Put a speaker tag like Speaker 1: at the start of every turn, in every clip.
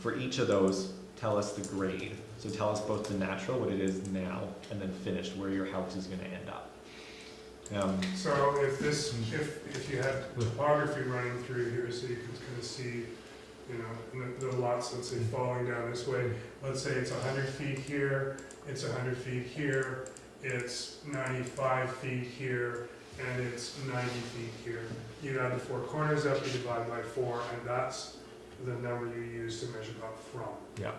Speaker 1: for each of those, tell us the grade. So tell us both the natural, what it is now, and then finished, where your house is gonna end up. Um,
Speaker 2: So if this, if, if you had topography running through here, so you could kind of see, you know, the, the lots, let's say, falling down this way. Let's say it's hundred feet here, it's hundred feet here, it's ninety-five feet here, and it's ninety feet here. You add the four corners up, you divide by four, and that's the number you use to measure up from.
Speaker 1: yeah,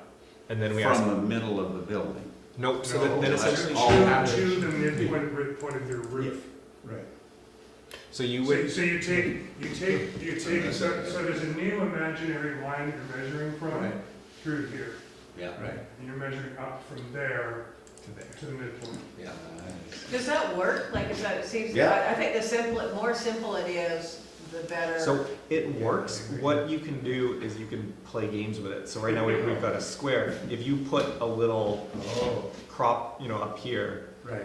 Speaker 1: and then we ask,
Speaker 3: From the middle of the building.
Speaker 1: nope, so
Speaker 2: No,
Speaker 1: then- then
Speaker 2: to-
Speaker 1: essentially,
Speaker 3: all
Speaker 2: To to the midpoint, point of your roof.
Speaker 3: Right.
Speaker 1: so you
Speaker 2: So,
Speaker 1: would,
Speaker 2: so you take, you take, you take, so, so there's a new imaginary line that you're measuring from
Speaker 3: Right.
Speaker 2: through here.
Speaker 3: Yeah. Right.
Speaker 2: And you're measuring up from there to the midpoint.
Speaker 3: Yeah.
Speaker 4: Does that work? Like, is that, it seems,
Speaker 3: Yeah.
Speaker 4: I I think the simpler, more simple it is, the better.
Speaker 1: So it works. What you can do is you can play games with it. So right now we- we've got a square. If you put a little
Speaker 3: Oh,
Speaker 1: crop, you know, up here,
Speaker 3: right.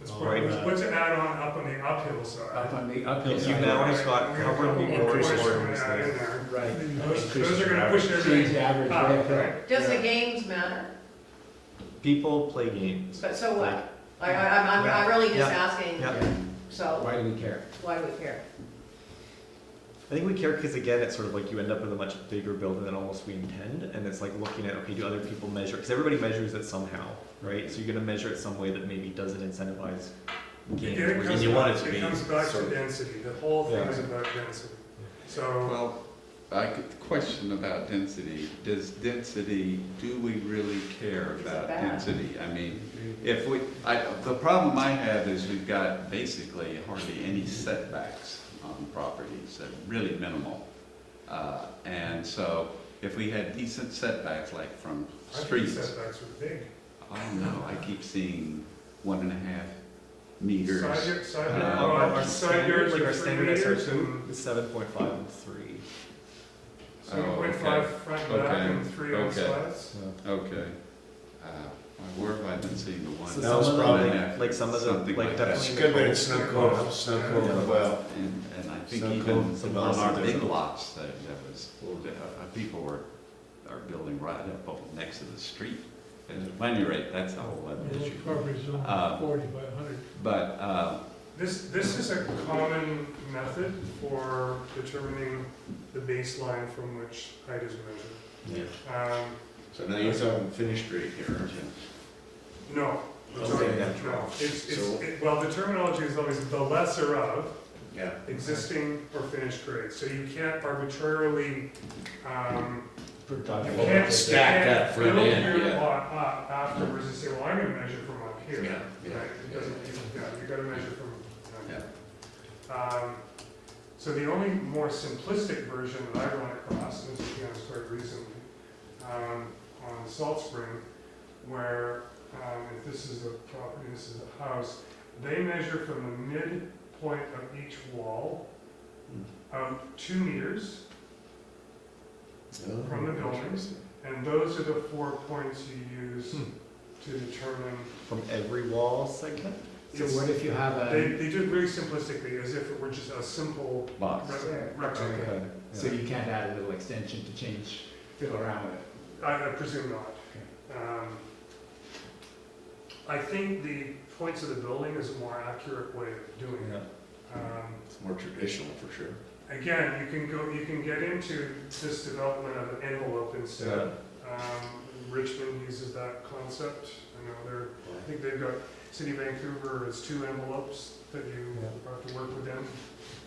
Speaker 2: That's
Speaker 1: All
Speaker 2: what-
Speaker 1: right.
Speaker 2: What's an add-on up on the uphill
Speaker 3: Up
Speaker 2: side?
Speaker 3: on the uphill
Speaker 1: you
Speaker 3: side.
Speaker 1: now have got
Speaker 2: We're gonna
Speaker 1: covered
Speaker 2: put
Speaker 1: more
Speaker 2: more
Speaker 1: doors.
Speaker 2: doors we're gonna add in there.
Speaker 3: Right.
Speaker 2: Those, those are gonna push
Speaker 3: Change
Speaker 2: everything
Speaker 3: the average
Speaker 2: up,
Speaker 3: right
Speaker 2: right?
Speaker 3: there.
Speaker 4: Does the games matter?
Speaker 1: People play games.
Speaker 4: But so
Speaker 1: Like-
Speaker 4: what? I, I, I'm, I'm- I'm really just
Speaker 1: Yeah.
Speaker 4: asking,
Speaker 1: Yeah,
Speaker 4: so
Speaker 3: Why do we care?
Speaker 4: why do we care?
Speaker 1: I think we care because again, it's sort of like you end up with a much bigger building than almost we intend, and it's like looking at okay, do other people measure? Because everybody measures it somehow, right? So you're gonna measure it some way that maybe doesn't incentivize games.
Speaker 2: Again, it
Speaker 1: where
Speaker 2: comes
Speaker 1: you want it
Speaker 2: back-
Speaker 1: to
Speaker 2: It
Speaker 1: be
Speaker 2: comes back
Speaker 1: sort
Speaker 2: to
Speaker 1: of-
Speaker 2: density, the whole thing
Speaker 1: Yeah.
Speaker 2: is about density. So,
Speaker 5: Well, I could question about density. Does density, do we really care
Speaker 4: Is it
Speaker 5: about
Speaker 4: bad?
Speaker 5: density? I mean, if we, I, the problem I have is we've got basically hardly any setbacks on properties, uh, really minimal. Uh, and so if we had decent setbacks, like from
Speaker 2: I think
Speaker 5: streets,
Speaker 2: setbacks are big.
Speaker 5: I don't know, I keep seeing one and a half meters.
Speaker 2: Side yard, side
Speaker 5: Uh,
Speaker 2: yard,
Speaker 1: Our,
Speaker 2: well,
Speaker 1: our
Speaker 2: side
Speaker 1: standard,
Speaker 2: yards
Speaker 1: like
Speaker 2: are
Speaker 1: our
Speaker 2: three
Speaker 1: standard
Speaker 2: meters
Speaker 1: SR2
Speaker 2: and
Speaker 1: is seven point five and three.
Speaker 2: seven point
Speaker 5: Oh,
Speaker 2: five front and back
Speaker 5: Okay.
Speaker 2: and three on
Speaker 5: Okay.
Speaker 2: sides.
Speaker 1: So.
Speaker 5: Okay. Uh, Where have I been seeing the one?
Speaker 1: So
Speaker 3: That
Speaker 1: some
Speaker 3: was
Speaker 1: of the,
Speaker 3: probably
Speaker 1: like, like some of the
Speaker 5: something
Speaker 1: like
Speaker 5: like that.
Speaker 1: definitely
Speaker 6: It's a good way to snow cone, snow cone as well.
Speaker 5: And, and I think
Speaker 6: So
Speaker 5: even
Speaker 1: cool.
Speaker 5: on our big lots, that, that was, uh, uh, people were, are building right up up next to the street. And at any rate, that's a whole other issue. Uh, But, uh,
Speaker 2: This, this is a common method for determining the baseline from which height is measured.
Speaker 1: Yeah.
Speaker 2: Um,
Speaker 6: So now you're talking finished grade here, aren't you?
Speaker 2: No,
Speaker 6: Okay,
Speaker 2: sorry,
Speaker 6: yeah.
Speaker 2: no, it's, it's,
Speaker 6: So-
Speaker 2: it- well, the terminology is always the lesser of
Speaker 6: Yeah.
Speaker 2: existing or finished grade. So you can't arbitrarily, um, You
Speaker 3: Productive.
Speaker 2: can't, you
Speaker 6: Stack
Speaker 2: can't
Speaker 6: up for
Speaker 2: build uh,
Speaker 6: the end,
Speaker 2: your
Speaker 6: yeah.
Speaker 2: lot up afterwards and say, well, I'm gonna measure from up here.
Speaker 6: Yeah, yeah,
Speaker 2: Right, It doesn't, you- yeah, you gotta measure from down
Speaker 5: yeah,
Speaker 2: here. Um, so the only more simplistic version that I've run across, and this is, you know, started recently, um, on Salt Spring, where, um, if this is a property, this is a house, they measure from the midpoint of each wall of two meters, From the buildings. and those are the four points you use
Speaker 1: Hmm.
Speaker 2: to determine
Speaker 1: From every wall segment.
Speaker 3: So what if you have
Speaker 2: They,
Speaker 3: a,
Speaker 2: they do it very simplistically, as if it were just a simple
Speaker 5: box.
Speaker 2: rec- rectangle.
Speaker 1: Okay.
Speaker 3: so you can't add a little extension to change, fiddle around with it?
Speaker 2: I I presume not. Um, I think the points of the building is a more accurate way of doing
Speaker 1: Yeah.
Speaker 2: it. Um,
Speaker 6: It's more traditional for sure.
Speaker 2: Again, you can go, you can get into this development of an envelope instead. Um, Richmond uses that concept. I know they're, I think they've got, City of Vancouver has two envelopes that you
Speaker 1: Yeah.
Speaker 2: have to work with them.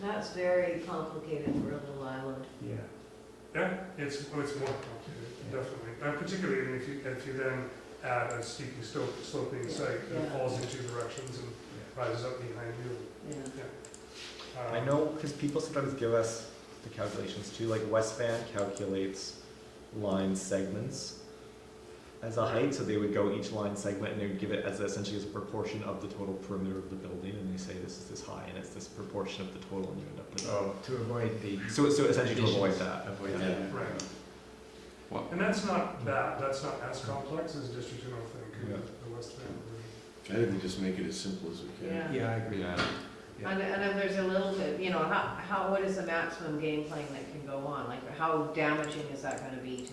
Speaker 4: That's very complicated for a little island.
Speaker 3: Yeah.
Speaker 2: Yeah, it's, oh, it's more complicated, definitely, and particularly if you, if you then add a steeply slope- sloping site that
Speaker 4: Yeah.
Speaker 2: falls in two directions and rises up behind you.
Speaker 4: Yeah.
Speaker 2: Um,
Speaker 1: I know because people sometimes give us the calculations too. Like West Van calculates line segments as a height, so they would go each line segment and they would give it as essentially as a proportion of the total perimeter of the building, and they say this is this high and it's this proportion of the total, and you end up with.
Speaker 3: Oh, to avoid the.
Speaker 1: So so essentially to avoid
Speaker 3: Additions.
Speaker 1: that.
Speaker 3: Avoid
Speaker 1: Yeah.
Speaker 3: that.
Speaker 2: Right.
Speaker 5: Well-
Speaker 2: And that's not bad, that's not as complex as District Two, I
Speaker 1: Mm. Yeah.
Speaker 2: think, the West Van. version.
Speaker 6: I think we just make it as simple as we can.
Speaker 4: Yeah.
Speaker 3: Yeah, I agree.
Speaker 5: Yeah,
Speaker 3: Yeah.
Speaker 4: And, and if there's a little bit, you know, how, how, what is the maximum game playing that can go on? Like, how damaging is that gonna be to